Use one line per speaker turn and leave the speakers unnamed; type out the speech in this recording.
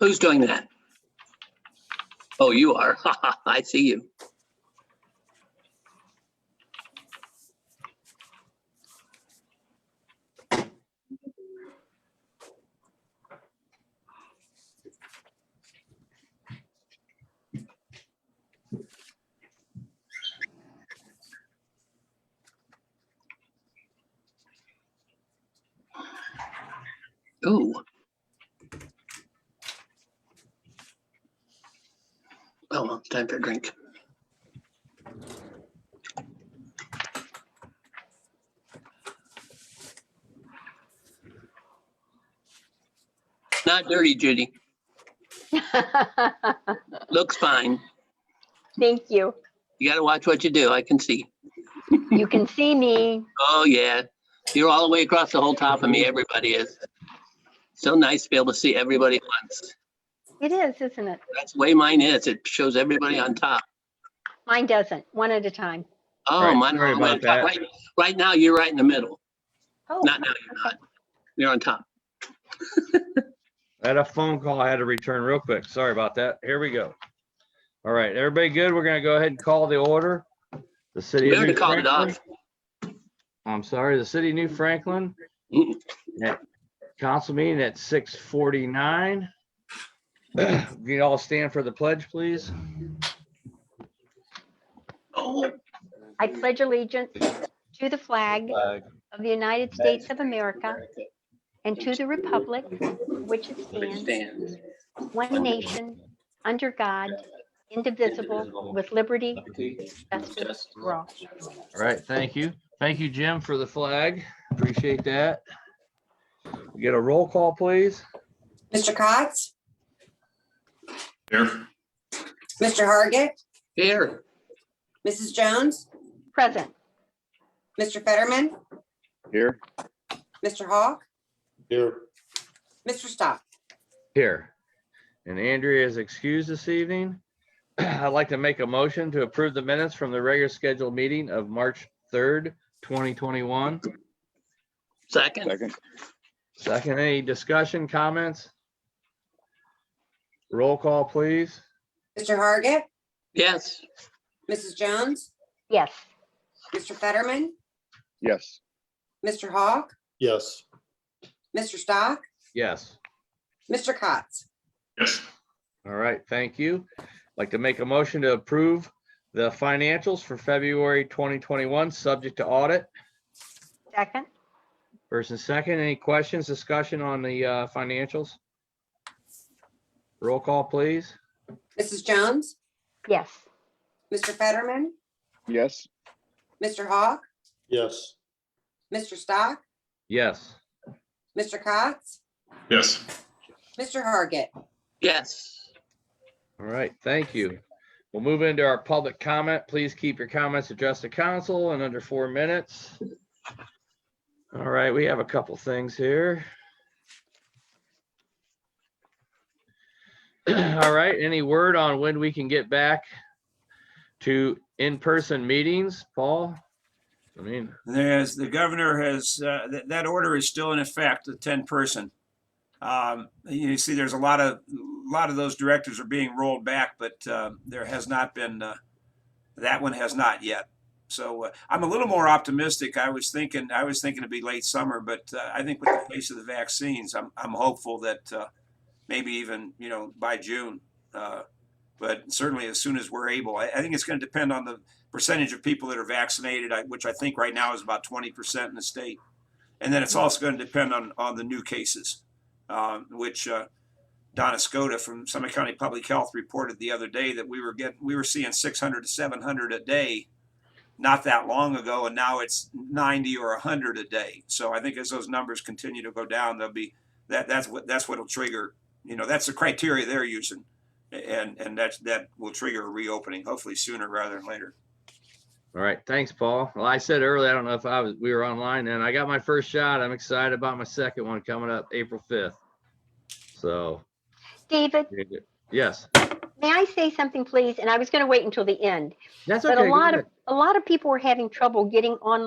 Who's doing that? Oh, you are. I see you. Ooh. Oh, well, time for a drink. Not dirty, Judy. Looks fine.
Thank you.
You gotta watch what you do. I can see.
You can see me.
Oh, yeah. You're all the way across the whole top of me. Everybody is. So nice to be able to see everybody at once.
It is, isn't it?
That's the way mine is. It shows everybody on top.
Mine doesn't, one at a time.
Oh,
Right,
mine are
sorry
all the way on
about
top.
that.
Right, right now, you're right in the middle.
Oh,
Not now, you're not. You're on top.
I had a phone call I had to return real quick. Sorry about that. Here we go. All right, everybody good? We're gonna go ahead and call the order. The city.
We
of
already
New
called it
Franklin-
off.
I'm sorry, the city of New Franklin.
Mm.
at Council meeting at six forty-nine. You all stand for the pledge, please.
Oh,
I pledge allegiance to the flag of the United States of America and to the republic for which it stands,
stand.
one nation, under God, indivisible, with liberty and justice for all.
All right, thank you. Thank you, Jim, for the flag. Appreciate that. Get a roll call, please.
Mr. Cox?
Here.
Mr. Hargit?
Here,
Mrs. Jones?
Present.
Mr. Fetterman?
Here.
Mr. Hawk?
Here.
Mr. Stock?
Here. And Andrea is excused this evening. I'd like to make a motion to approve the minutes from the regular scheduled meeting of March third, twenty twenty-one.
second.
Second.
Second, any discussion, comments? Roll call, please.
Mr. Hargit?
Yes,
Mrs. Jones?
Yes.
Mr. Fetterman?
Yes.
Mr. Hawk?
Yes.
Mr. Stock?
Yes.
Mr. Cox?
Yes.
All right, thank you. I'd Like to make a motion to approve the financials for February twenty twenty-one, subject to audit.
Second.
First and second, any questions, discussion on the uh, financials? Roll call, please.
Mrs. Jones?
Yes.
Mr. Fetterman?
Yes.
Mr. Hawk?
Yes.
Mr. Stock?
Yes.
Mr. Cox?
Yes.
Mr. Hargit?
yes.
All right, thank you. We'll move into our public comment. Please keep your comments addressed to council in under four minutes. All right, we have a couple things here. All right, any word on when we can get back to in-person meetings, Paul? I mean,
There's, the governor has, uh, that, that order is still in effect, the ten person. Um, you see, there's a lot of, a lot of those directives are being rolled back, but, uh, there has not been, uh, that one has not yet. So, uh, I'm a little more optimistic. I was thinking, I was thinking it'd be late summer, but, uh, I think with the pace of the vaccines, I'm, I'm hopeful that, uh, maybe even, you know, by June. Uh, but certainly as soon as we're able, I, I think it's gonna depend on the, percentage of people that are vaccinated, I- which I think right now is about twenty percent in the state. And then it's also going to depend on, on the new cases, um, which uh, Donna Skoda from Summit County Public Health reported the other day that we were getting, we were seeing six hundred to seven hundred a day not that long ago, and now it's ninety or hundred a day. So I think as those numbers continue to go down, they'll be, that, that's what, that's what'll trigger, you know, that's the criteria they're using. And, and that's, that will trigger a reopening, hopefully sooner rather than later.
all right, thanks, Paul. Well, I said earlier, I don't know if I was, we were online and I got my first shot. I'm excited about my second one coming up April 5th. So,
David,
yes,
may I say something, please? And I was going to wait until the end.
that's okay.
But a
go
lot
ahead.
of, a lot of people were having trouble getting online.